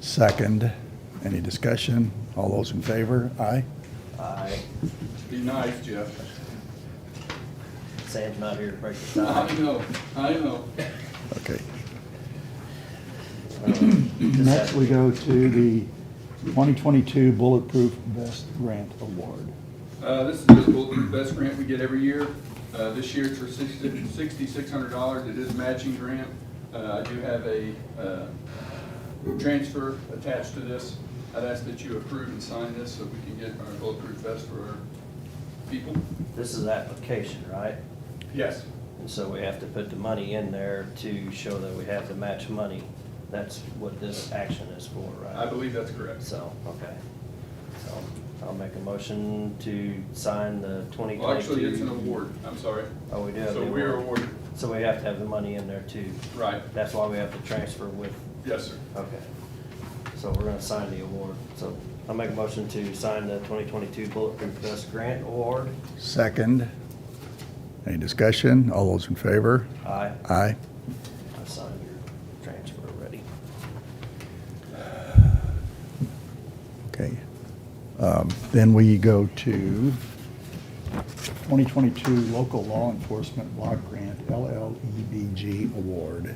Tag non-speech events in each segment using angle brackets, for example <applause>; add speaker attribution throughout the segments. Speaker 1: Second. Any discussion? All those in favor? Aye.
Speaker 2: Aye.
Speaker 3: Be nice, Jeff.
Speaker 2: <laughs> Sam's not here to break the
Speaker 3: I
Speaker 2: tie.
Speaker 3: know, I know.
Speaker 1: Okay. Next,
Speaker 2: Just
Speaker 1: Uh, we
Speaker 2: have-
Speaker 1: go to the 2022 Bulletproof Vest Grant Award.
Speaker 3: Uh, this is the bulletproof vest grant we get every year. Uh, this year it's for sixty-six hundred dollars. It is a matching grant. Uh, I do have a, uh, transfer attached to this. I'd ask that you approve and sign this so we can get our bulletproof vest for our people.
Speaker 2: This is application, right?
Speaker 3: Yes.
Speaker 2: And so we have to put the money in there to show that we have the match money. That's what this action is for,
Speaker 3: I
Speaker 2: right?
Speaker 3: believe that's correct.
Speaker 2: So, okay. So I'll make a motion to sign the twenty twenty-two.
Speaker 3: Well, actually, it's an award. I'm sorry.
Speaker 2: Oh, we do have the
Speaker 3: So we're
Speaker 2: award.
Speaker 3: awarded.
Speaker 2: So we have to have the money in there too.
Speaker 3: Right.
Speaker 2: That's why we have to transfer with,
Speaker 3: Yes, sir.
Speaker 2: okay. So we're gonna sign the award. So I'll make a motion to sign the twenty twenty-two Bulletproof Vest Grant Award.
Speaker 1: Second. Any discussion? All those in favor?
Speaker 2: Aye.
Speaker 1: Aye.
Speaker 2: I signed your transfer already.
Speaker 1: Okay. Um, Then we go to 2022 Local Law Enforcement Block Grant LLEBG Award.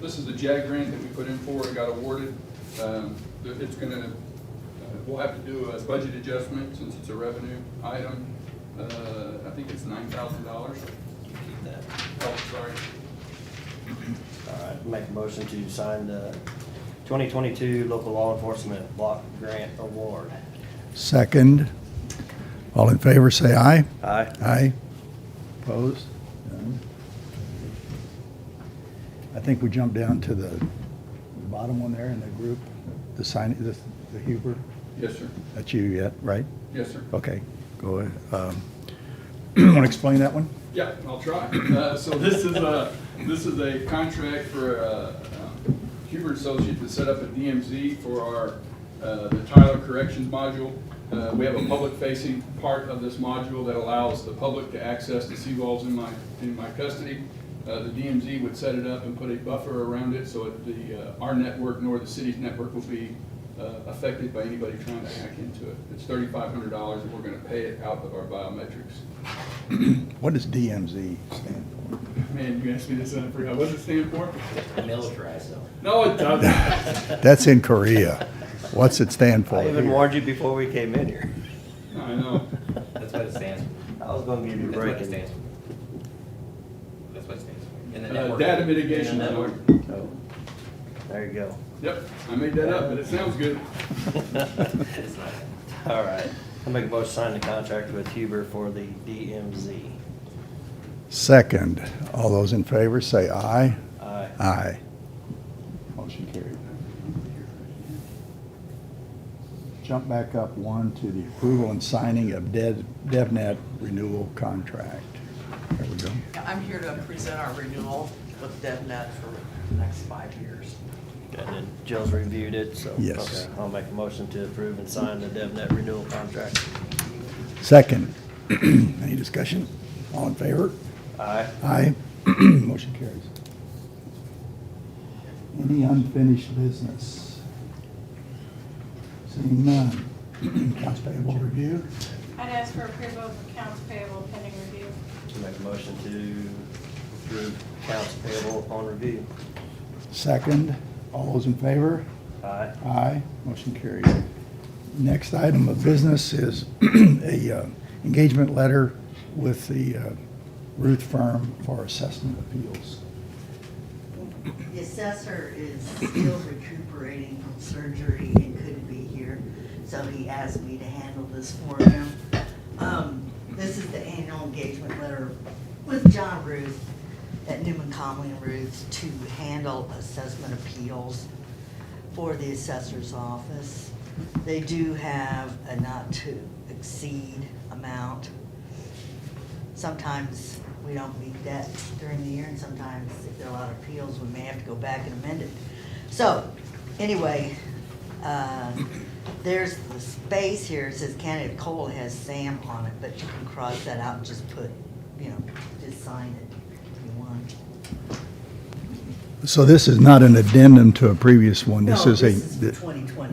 Speaker 3: This is the JAG grant that we put in for and got awarded. Um, th- It's gonna, uh, we'll have to do a budget adjustment since it's a revenue item. Uh, I think it's nine thousand dollars.
Speaker 2: Keep that.
Speaker 3: Oh, sorry.
Speaker 2: All right, make a motion to sign the twenty twenty-two Local Law Enforcement Block Grant Award.
Speaker 1: Second. All in favor, say aye.
Speaker 2: Aye.
Speaker 1: Aye. Opposed? None. I think we jump down to the bottom one there in the group, the sign, the the Huber.
Speaker 3: Yes, sir.
Speaker 1: That's you yet, right?
Speaker 3: Yes, sir.
Speaker 1: Okay, go ahead. <clears throat> Want to explain that one?
Speaker 3: Yeah, I'll try. Uh, So this is a, this is a contract for uh, um, Huber Associate to set up a DMZ for our, uh, the Tyler Corrections Module. Uh, We have a public-facing part of this module that allows the public to access the seawalls in my, in my custody. Uh, The DMZ would set it up and put a buffer around it so that the, uh, our network nor the city's network will be uh, affected by anybody trying to hack into it. It's thirty-five hundred dollars and we're gonna pay it out of our biometrics.
Speaker 1: What does DMZ stand for?
Speaker 3: Man, you asked me this and I forgot. What does it stand for?
Speaker 2: Militarized zone.
Speaker 3: No, it doesn't.
Speaker 1: That's in Korea. What's it stand for?
Speaker 2: I even
Speaker 1: here?
Speaker 2: warned you before we came in here.
Speaker 3: I know.
Speaker 4: That's what it stands for.
Speaker 2: I was gonna give you a
Speaker 4: That's what
Speaker 2: break.
Speaker 4: it stands for. That's what it stands for. In the
Speaker 3: Uh,
Speaker 4: network.
Speaker 3: data
Speaker 2: And then
Speaker 3: mitigation.
Speaker 2: that
Speaker 3: network.
Speaker 2: worked. So, Oh, There you go.
Speaker 3: Yep, I made that up, but it sounds good.
Speaker 4: <laughs> It's not.
Speaker 2: <laughs> All right, I'll make a motion to sign the contract with Huber for the DMZ.
Speaker 1: Second. All those in favor, say aye.
Speaker 2: Aye.
Speaker 1: Aye. Motion carried. Jump back up one to the approval and signing of Dev- DevNet renewal contract. There we go.
Speaker 5: I'm here to present our renewal with DevNet for the next five years.
Speaker 2: And then Jill's reviewed it, so.
Speaker 1: Yes.
Speaker 2: okay, I'll make a motion to approve and sign the DevNet renewal contract.
Speaker 1: Second. <clears throat> Any discussion? All in favor?
Speaker 2: Aye.
Speaker 1: Aye. <clears throat> Motion carries. Any unfinished business? Seeing none. <clears throat> Accounts payable review?
Speaker 6: I'd ask for approval of accounts payable pending review.
Speaker 2: Make a motion to approve accounts payable upon review.
Speaker 1: Second. All those in favor?
Speaker 2: Aye.
Speaker 1: Aye, motion carried. Next item of business is <clears throat> a uh, engagement letter with the uh, Ruth firm for assessment appeals.
Speaker 7: The assessor is still recuperating from surgery and couldn't be here, so he asked me to handle this for him. Um, This is the annual engagement letter with John Ruth at Newman Conley and Ruth to handle assessment appeals for the assessor's office. They do have a not to exceed amount. Sometimes we don't meet that during the year, and sometimes if there are a lot of appeals, we may have to go back and amend it. So, anyway, uh, there's the space here, it says candidate Cole has Sam on it, but you can cross that out and just put, you know, just sign it if you want.
Speaker 1: So this is not an addendum to a previous one. This
Speaker 7: No,
Speaker 1: is a.
Speaker 7: This is for 2020.